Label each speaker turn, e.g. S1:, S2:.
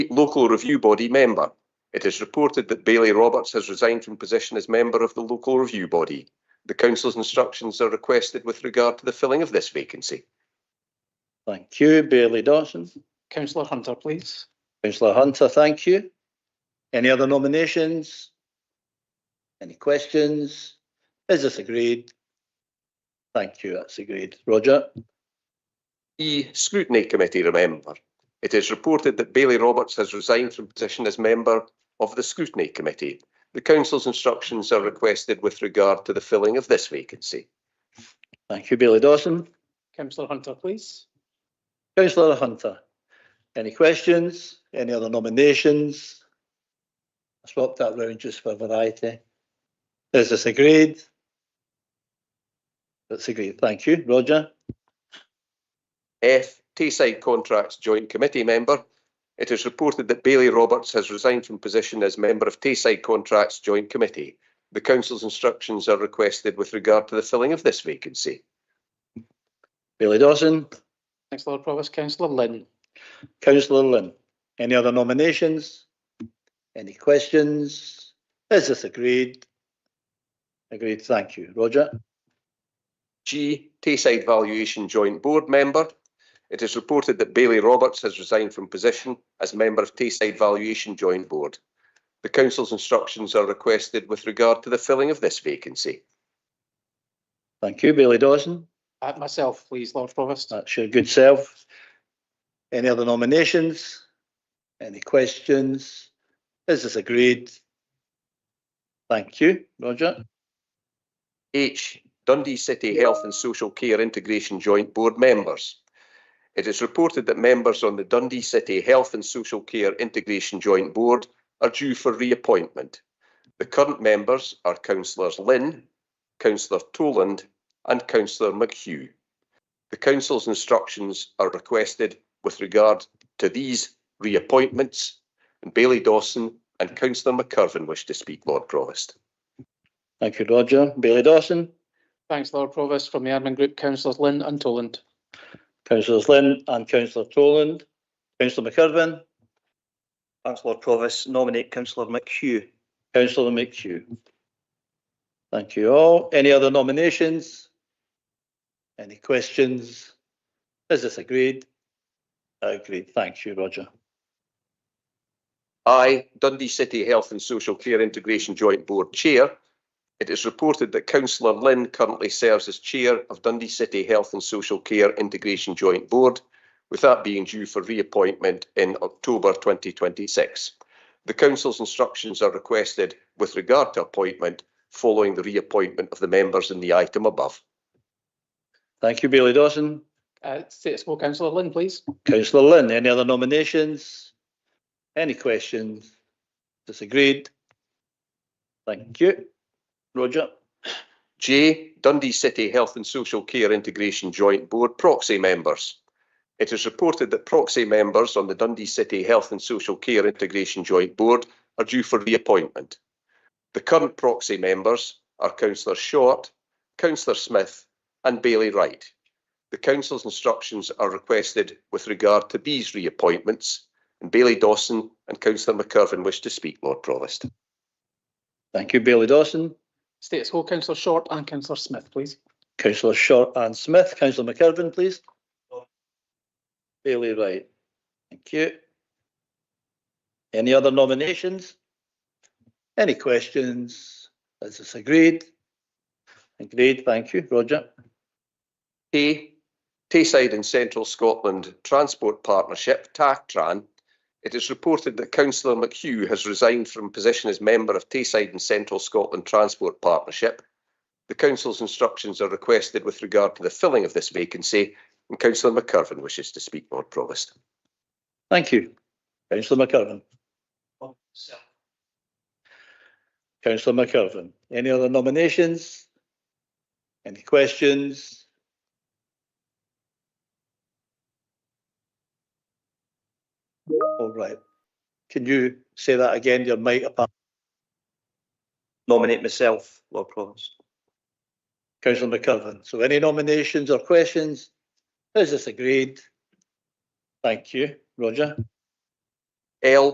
S1: local review body member. It is reported that Bailey Roberts has resigned from position as member of the local review body. The council's instructions are requested with regard to the filling of this vacancy.
S2: Thank you. Bailey Dawson.
S3: Councillor Hunter, please.
S2: Councillor Hunter, thank you. Any other nominations? Any questions? Is this agreed? Thank you, that's agreed. Roger?
S1: E. Scrutiny Committee Remember. It is reported that Bailey Roberts has resigned from position as member of the Scrutiny Committee. The council's instructions are requested with regard to the filling of this vacancy.
S2: Thank you, Bailey Dawson.
S3: Councillor Hunter, please.
S2: Councillor Hunter, any questions? Any other nominations? I swapped that round just for variety. Is this agreed? That's agreed. Thank you. Roger?
S1: F. Tayside Contracts Joint Committee Member. It is reported that Bailey Roberts has resigned from position as member of Tayside Contracts Joint Committee. The council's instructions are requested with regard to the filling of this vacancy.
S2: Bailey Dawson?
S3: Councillor Provost, Councillor Lynn.
S2: Councillor Lynn, any other nominations? Any questions? Is this agreed? Agreed, thank you. Roger?
S1: G. Tayside Valuation Joint Board Member. It is reported that Bailey Roberts has resigned from position as member of Tayside Valuation Joint Board. The council's instructions are requested with regard to the filling of this vacancy.
S2: Thank you. Bailey Dawson,
S3: At Uh, myself, please, Lord Provost.
S2: that's your good self. Any other nominations? Any questions? Is this agreed? Thank you. Roger?
S1: H. Dundee City Health and Social Care Integration Joint Board members. It is reported that members on the Dundee City Health and Social Care Integration Joint Board are due for reappointment. The current members are councillors Lynn, councillor Toland and councillor McHugh. The council's instructions are requested with regard to these reappointments and Bailey Dawson and councillor McCurvin wish to speak, Lord Provost.
S2: Thank you, Roger. Bailey Dawson,
S3: Thanks, Lord Provost. From the admin group, councillors Lynn and Toland.
S2: councillors Lynn and councillor Toland. Councillor McKerven?
S4: Councillor Provis nominate Councillor McHugh.
S2: Councillor McHugh. Thank you all. Any other nominations? Any questions? Is this agreed? Agreed. Thank you, Roger.
S1: I, Dundee City Health and Social Care Integration Joint Board Chair. It is reported that councillor Lynn currently serves as Chair of Dundee City Health and Social Care Integration Joint Board, with that being due for reappointment in October 2026. The council's instructions are requested with regard to appointment following the reappointment of the members in the item above.
S2: Thank you, Bailey Dawson.
S3: Uh, State School Councillor Lynn, please.
S2: Councillor Lynn, any other nominations? Any questions? Disagreed? Thank you. Roger?
S1: J. Dundee City Health and Social Care Integration Joint Board proxy members. It is reported that proxy members on the Dundee City Health and Social Care Integration Joint Board are due for reappointment. The current proxy members are Councillor Short, Councillor Smith and Bailey Wright. The council's instructions are requested with regard to these reappointments and Bailey Dawson and Councillor McCurvin wish to speak, Lord Provost.
S2: Thank you, Bailey Dawson.
S3: State School Councillor Short and Councillor Smith, please.
S2: Councillor Short and Smith. Councillor McKerven, please. Bailey Wright. Thank you. Any other nominations? Any questions? Is this agreed? Agreed, thank you. Roger.
S1: P. Tayside and Central Scotland Transport Partnership, TACTRAN. It is reported that Councillor McHugh has resigned from position as member of Tayside and Central Scotland Transport Partnership. The council's instructions are requested with regard to the filling of this vacancy, and Councillor McCurvin wishes to speak, Lord Provost.
S2: Thank you. Councillor McKerven. Councillor McKerven. Any other nominations? Any questions? All right. Can you say that again? Your mic apart.
S4: Nominate myself, Lord Provost.
S2: Councillor McKerven. So any nominations or questions? Is this agreed? Thank you. Roger?
S1: L